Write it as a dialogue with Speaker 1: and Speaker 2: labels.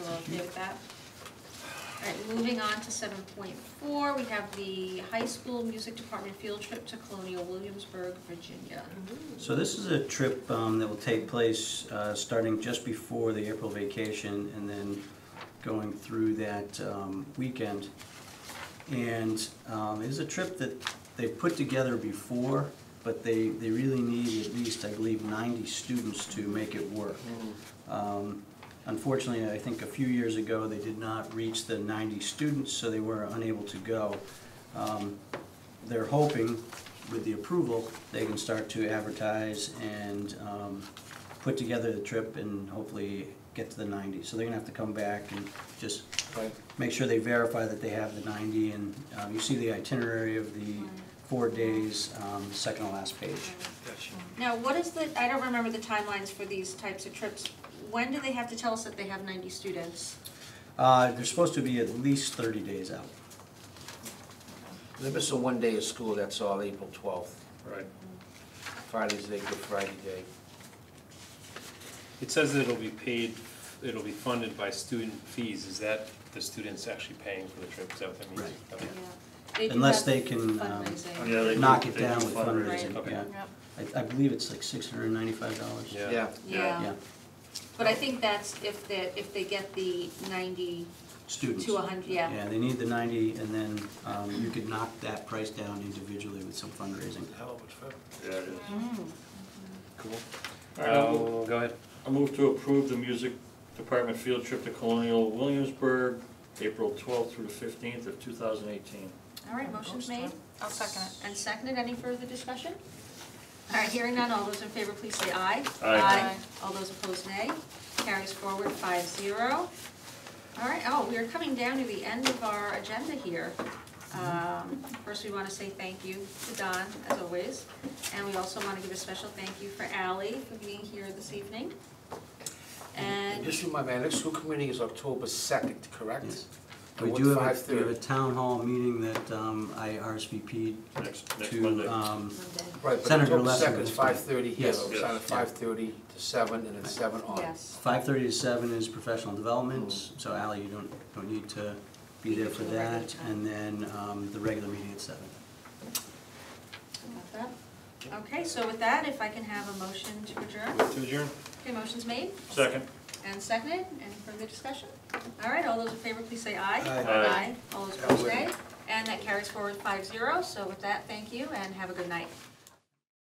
Speaker 1: with that. All right, moving on to seven point four, we have the high school music department field trip to Colonial Williamsburg, Virginia.
Speaker 2: So this is a trip um, that will take place uh, starting just before the April vacation and then going through that um, weekend. And um, it is a trip that they put together before, but they, they really need at least, I believe, 90 students to make it work. Um, Unfortunately, I think a few years ago, they did not reach the 90 students, so they were unable to go. Um, They're hoping, with the approval, they can start to advertise and um, put together the trip and hopefully get to the 90. So they're gonna have to come back and just
Speaker 3: Right.
Speaker 2: make sure they verify that they have the 90. And um, you see the itinerary of the four days, um, second to last page.
Speaker 3: Gotcha.
Speaker 1: Now, what is the, I don't remember the timelines for these types of trips. When do they have to tell us that they have ninety students?
Speaker 2: Uh, They're supposed to be at least 30 days out.
Speaker 3: They miss a one day of school, that's all, April twelfth.
Speaker 4: Right.
Speaker 3: Friday's day, Good Friday day.
Speaker 4: It says that it'll be paid, it'll be funded by student fees. Is that the students actually paying for the trip? Is that what that means?
Speaker 2: Right.
Speaker 4: Okay.
Speaker 1: They do have
Speaker 2: Unless they can, um,
Speaker 1: fundraising.
Speaker 5: Yeah, they do-
Speaker 2: Knock it
Speaker 5: they do
Speaker 2: down with
Speaker 5: fundraising.
Speaker 2: fundraising,
Speaker 4: Right.
Speaker 2: yeah.
Speaker 4: Okay.
Speaker 1: Yep.
Speaker 2: I, I believe it's like six hundred and ninety-five dollars.
Speaker 4: Yeah.
Speaker 3: Yeah,
Speaker 1: Yeah,
Speaker 2: Yeah,
Speaker 1: but I think that's if they, if they get the ninety
Speaker 2: students.
Speaker 1: to hundred, yeah.
Speaker 2: Yeah, they need the ninety, and then, um, you could knock that price down individually with some fundraising.
Speaker 3: Hell, it was fun.
Speaker 5: Yeah, it is.
Speaker 1: Mm.
Speaker 4: Cool.
Speaker 5: All right, I'll
Speaker 4: Uh, go ahead.
Speaker 5: I move to approve the music department field trip to Colonial Williamsburg, April twelfth through the fifteenth of two thousand eighteen.
Speaker 1: All right, motion's made. I'll second it. And seconded, any further discussion? All right, hearing none, all those in favor, please say aye.
Speaker 5: Aye.
Speaker 1: All those opposed, nay. Carries forward five zero. All right, oh, we are coming down to the end of our agenda here. Um, First, we want to say thank you to Don, as always, and we also want to give a special thank you for Ally for being here this evening.
Speaker 3: And
Speaker 1: And,
Speaker 3: just remind me, our next school committee is October second, correct?
Speaker 2: Yes.
Speaker 3: And
Speaker 2: We
Speaker 3: what's
Speaker 2: do have, a- we
Speaker 3: 5:30?
Speaker 2: have a town hall meeting that, um, I RSVP'd
Speaker 5: Next, next Monday.
Speaker 2: to, um,
Speaker 3: Right, but
Speaker 2: Senator
Speaker 3: October
Speaker 2: Lessing
Speaker 3: second is
Speaker 2: was fine.
Speaker 3: five thirty here,
Speaker 2: Yes.
Speaker 3: so it's
Speaker 5: Yes.
Speaker 3: on at five thirty to seven, and then seven on.
Speaker 1: yes.
Speaker 2: five-thirty to seven is professional development, so Ally, you don't, don't need to be there for
Speaker 1: Be there for the
Speaker 2: that, and then, um, the regular meeting at seven.
Speaker 1: Got that? Okay, so with that, if I can have a motion to adjourn.
Speaker 4: Move to adjourn?
Speaker 1: Okay, motion's made
Speaker 5: uh, Second.
Speaker 1: and seconded. Any further discussion? All right, all those in favor, please say aye.
Speaker 3: Aye.
Speaker 5: Aye.
Speaker 1: All those
Speaker 3: Yeah,
Speaker 1: opposed,
Speaker 3: we're-
Speaker 1: nay. And that carries forward five zero. So with that, thank you and have a good night.